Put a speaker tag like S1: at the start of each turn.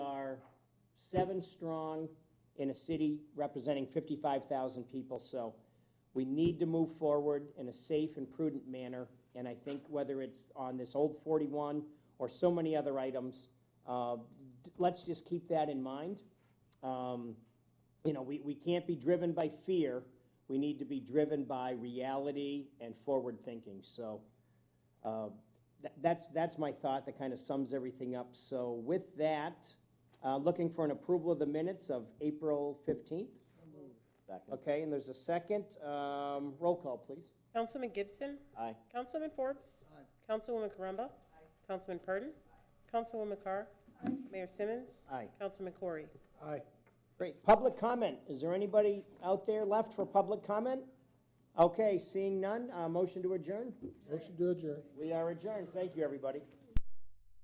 S1: seven strong in a city representing 55,000 people. So we need to move forward in a safe and prudent manner. And I think whether it's on this old 41 or so many other items, uh, d- let's just keep that in mind. Um, You know, we, we can't be driven by fear. We need to be driven by reality and forward thinking. So uh, tha- that's, that's my thought that kind of sums everything up. So with that, uh, looking for an approval of the minutes of April 15th.
S2: Second.
S1: Okay, and there's a second. Um, Roll call, please.
S3: Councilman Gibson.
S2: Aye.
S3: Councilman Forbes. Councilwoman Caramba. Councilman Purdon. Councilwoman Carr. Mayor Simmons.
S1: Aye.
S3: Councilman Corey.
S4: Aye.
S1: Great. Public comment. Is there anybody out there left for public comment? Okay, seeing none, uh, motion to adjourn.
S4: Motion to adjourn.
S1: We are adjourned. Thank you, everybody.